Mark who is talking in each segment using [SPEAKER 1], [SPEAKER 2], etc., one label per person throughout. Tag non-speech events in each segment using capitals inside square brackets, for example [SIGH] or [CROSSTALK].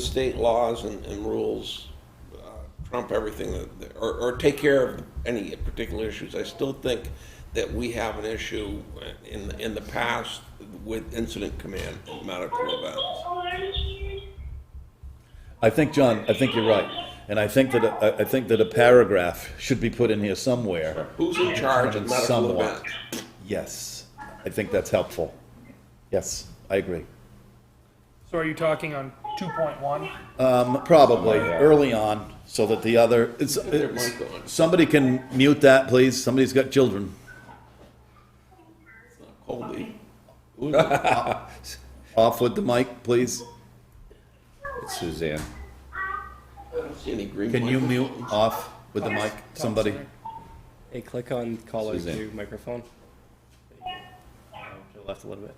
[SPEAKER 1] state laws and, and rules uh, trump everything that- that, or, or take care of any particular issues. I still think that we have an issue in, in the past with incident command and medical events.
[SPEAKER 2] I think, John, I think you're right. And I think that, I, I think that a paragraph should be put in here somewhere.
[SPEAKER 1] Who's in charge of medical
[SPEAKER 2] Somewhat.
[SPEAKER 1] events?
[SPEAKER 2] Yes, I think that's helpful. Yes, I agree.
[SPEAKER 3] So are you talking on two point one?
[SPEAKER 2] Um, probably early on, so that the other, it's,
[SPEAKER 1] Oh, their
[SPEAKER 2] it's-
[SPEAKER 1] mic on.
[SPEAKER 2] somebody can mute that, please. Somebody's got children.
[SPEAKER 1] Colby.
[SPEAKER 2] [LAUGHS]
[SPEAKER 1] Who's it?
[SPEAKER 2] Off with the mic, please.
[SPEAKER 4] It's Suzanne.
[SPEAKER 1] I don't see any green
[SPEAKER 2] Can you
[SPEAKER 1] microphones.
[SPEAKER 2] mute off with the mic, somebody?
[SPEAKER 5] Hey, click on caller
[SPEAKER 4] Suzanne.
[SPEAKER 5] to microphone. There you go. To the left a little bit.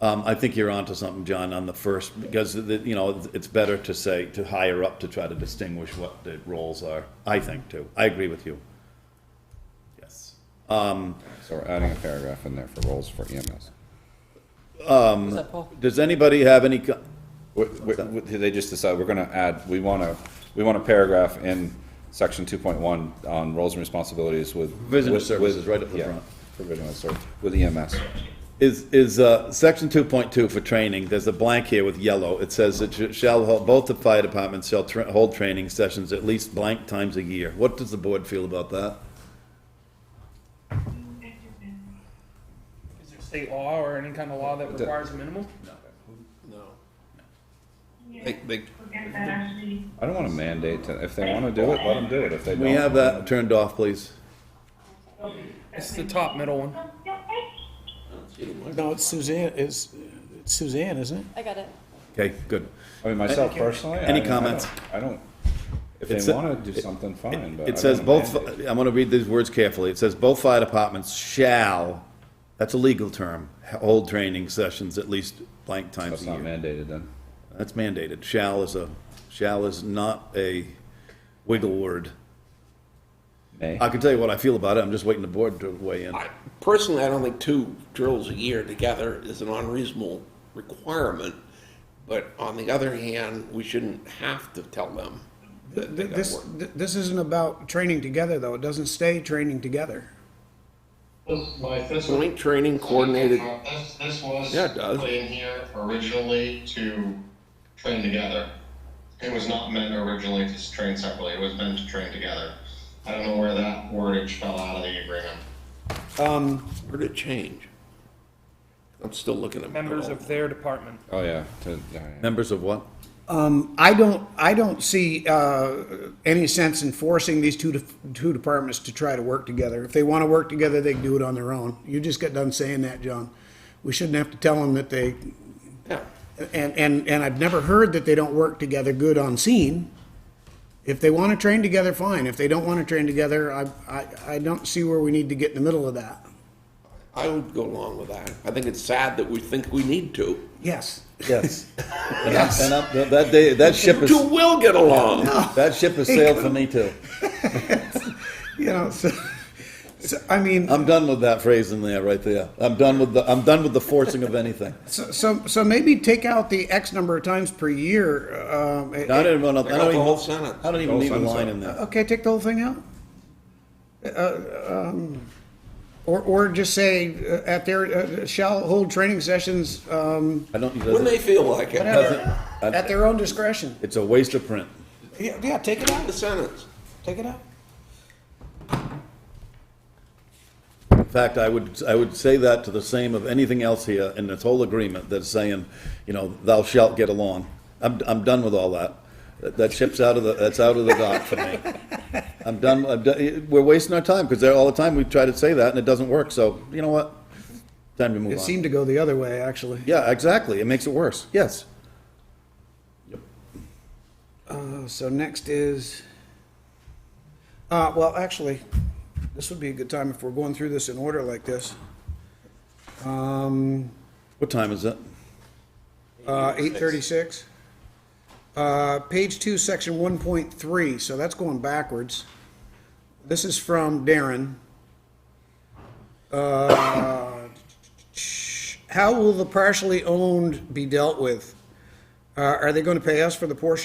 [SPEAKER 2] Um, I think you're onto something, John, on the first, because, the- you know, it's better to say, to higher up to try to distinguish what the roles are, I think, too. I agree with you. Yes.
[SPEAKER 4] So we're adding a paragraph in there for roles for E EMS.
[SPEAKER 5] What's that, Paul?
[SPEAKER 2] Does anybody have any, co-
[SPEAKER 4] What- what- what- They just decided we're gonna add, we wanna, we want a paragraph in section two point one on roles and responsibilities with.
[SPEAKER 2] Provision of
[SPEAKER 4] with-
[SPEAKER 2] services,
[SPEAKER 4] with-
[SPEAKER 2] right up the
[SPEAKER 4] yeah,
[SPEAKER 2] front.
[SPEAKER 4] Provision of service, with E EMS.
[SPEAKER 2] is, is, uh, section two point two for training, there's a blank here with yellow. It says that you shall, hold- both the fire departments shall tra- hold training sessions at least blank times a year. What does the board feel about that?
[SPEAKER 3] Is there state law or any kind of law that requires a minimum?
[SPEAKER 4] They, they, I don't wanna mandate to, if they wanna do it, let them do it. If they
[SPEAKER 2] We
[SPEAKER 4] don't,
[SPEAKER 2] have that turned off, please.
[SPEAKER 3] It's the top middle one.
[SPEAKER 1] I don't see any mic-
[SPEAKER 6] No, it's Suzanne, it's it's Suzanne, isn't it?
[SPEAKER 7] I got it.
[SPEAKER 2] Okay, good.
[SPEAKER 4] I mean, myself personally. I
[SPEAKER 2] Any
[SPEAKER 4] mean, I don't-
[SPEAKER 2] comments?
[SPEAKER 4] I don't, if
[SPEAKER 2] It's
[SPEAKER 4] they
[SPEAKER 2] a-
[SPEAKER 4] wanna do something, fine, but. uh, I
[SPEAKER 2] It says
[SPEAKER 4] don't
[SPEAKER 2] both,
[SPEAKER 4] mandate
[SPEAKER 2] I'm gonna read these words carefully. It says both fire departments shall, that's a legal term, hold training sessions at least blank times
[SPEAKER 4] That's
[SPEAKER 2] a
[SPEAKER 4] not
[SPEAKER 2] year.
[SPEAKER 4] mandated then.
[SPEAKER 2] That's mandated. Shall is a, shall is not a wiggle word.
[SPEAKER 4] May,
[SPEAKER 2] I can tell you what I feel about it. I'm just waiting the board to weigh in.
[SPEAKER 1] I- Personally, I don't think two drills a year together is an unreasonable requirement. But on the other hand, we shouldn't have to tell them that they got
[SPEAKER 6] This,
[SPEAKER 1] work.
[SPEAKER 6] this isn't about training together, though. It doesn't stay training together.
[SPEAKER 8] This, like, this was-
[SPEAKER 1] Joint training coordinated
[SPEAKER 8] This, this was.
[SPEAKER 1] Yeah, it does.
[SPEAKER 8] Put in here originally to train together. It was not meant originally to train separately, it was meant to train together. I don't know where that wordage fell out of the agreement.
[SPEAKER 1] Where did it change? I'm still looking at. my
[SPEAKER 3] Members
[SPEAKER 1] old-
[SPEAKER 3] of their department.
[SPEAKER 4] oh yeah, to, yeah, yeah.
[SPEAKER 2] Members of what?
[SPEAKER 6] I don't, I don't see uh, any sense in forcing these two, de- two departments to try to work together. If they want to work together, they can do it on their own. You just got done saying that, John. We shouldn't have to tell them that they,
[SPEAKER 1] Yeah,
[SPEAKER 6] and, and, and I've never heard that they don't work together good on scene. If they want to train together, fine. If they don't want to train together, I, I, I don't see where we need to get in the middle of that.
[SPEAKER 1] I would go along with that. I think it's sad that we think we need to.
[SPEAKER 6] Yes.
[SPEAKER 2] [LAUGHS] Yes. And I'm- and I'm- that day, that ship is,
[SPEAKER 1] Two will get along.
[SPEAKER 2] that ship has sailed for me too.
[SPEAKER 6] you know, so, so I mean,
[SPEAKER 2] I'm done with that phrase in there, right there. I'm done with the, I'm done with the forcing of anything.
[SPEAKER 6] so, so, so maybe take out the X number of times per year. Um, it-
[SPEAKER 2] I don't even, I
[SPEAKER 1] Take out
[SPEAKER 2] don't
[SPEAKER 1] the whole
[SPEAKER 2] even,
[SPEAKER 1] sentence.
[SPEAKER 2] I don't even
[SPEAKER 4] Whole
[SPEAKER 2] need a
[SPEAKER 4] sentence.
[SPEAKER 2] line in there.
[SPEAKER 6] okay, take the whole thing out. Uh, um, or, or just say uh, at their uh, shall hold training sessions um,
[SPEAKER 2] I don't, it
[SPEAKER 1] When they
[SPEAKER 2] doesn't,
[SPEAKER 1] feel like it.
[SPEAKER 6] whatever,
[SPEAKER 2] Doesn't-
[SPEAKER 6] at their own discretion.
[SPEAKER 2] it's a waste of print.
[SPEAKER 6] Yeah, yeah, take it
[SPEAKER 1] The
[SPEAKER 6] out.
[SPEAKER 1] sentence.
[SPEAKER 6] Take it out.
[SPEAKER 2] In fact, I would, I would say that to the same of anything else here in this whole agreement that's saying, you know, thou shalt get along. I'm, I'm done with all that. That- That ship's out of the, that's out of the dock for me. I'm done, I'm done, we're wasting our time, because all the time we try to say that and it doesn't work, so you know what? Time to move
[SPEAKER 6] It
[SPEAKER 2] on.
[SPEAKER 6] seemed to go the other way, actually.
[SPEAKER 2] Yeah, exactly, it makes it worse, yes.
[SPEAKER 6] Uh, So next is, uh, well, actually, this would be a good time if we're going through this in order like this. Um,
[SPEAKER 2] What time is it?
[SPEAKER 6] uh, eight thirty-six. Uh, page two, section one point three, so that's going backwards. This is from Darren. Uh, How will the partially owned be dealt with? Uh, are they gonna pay us for the portion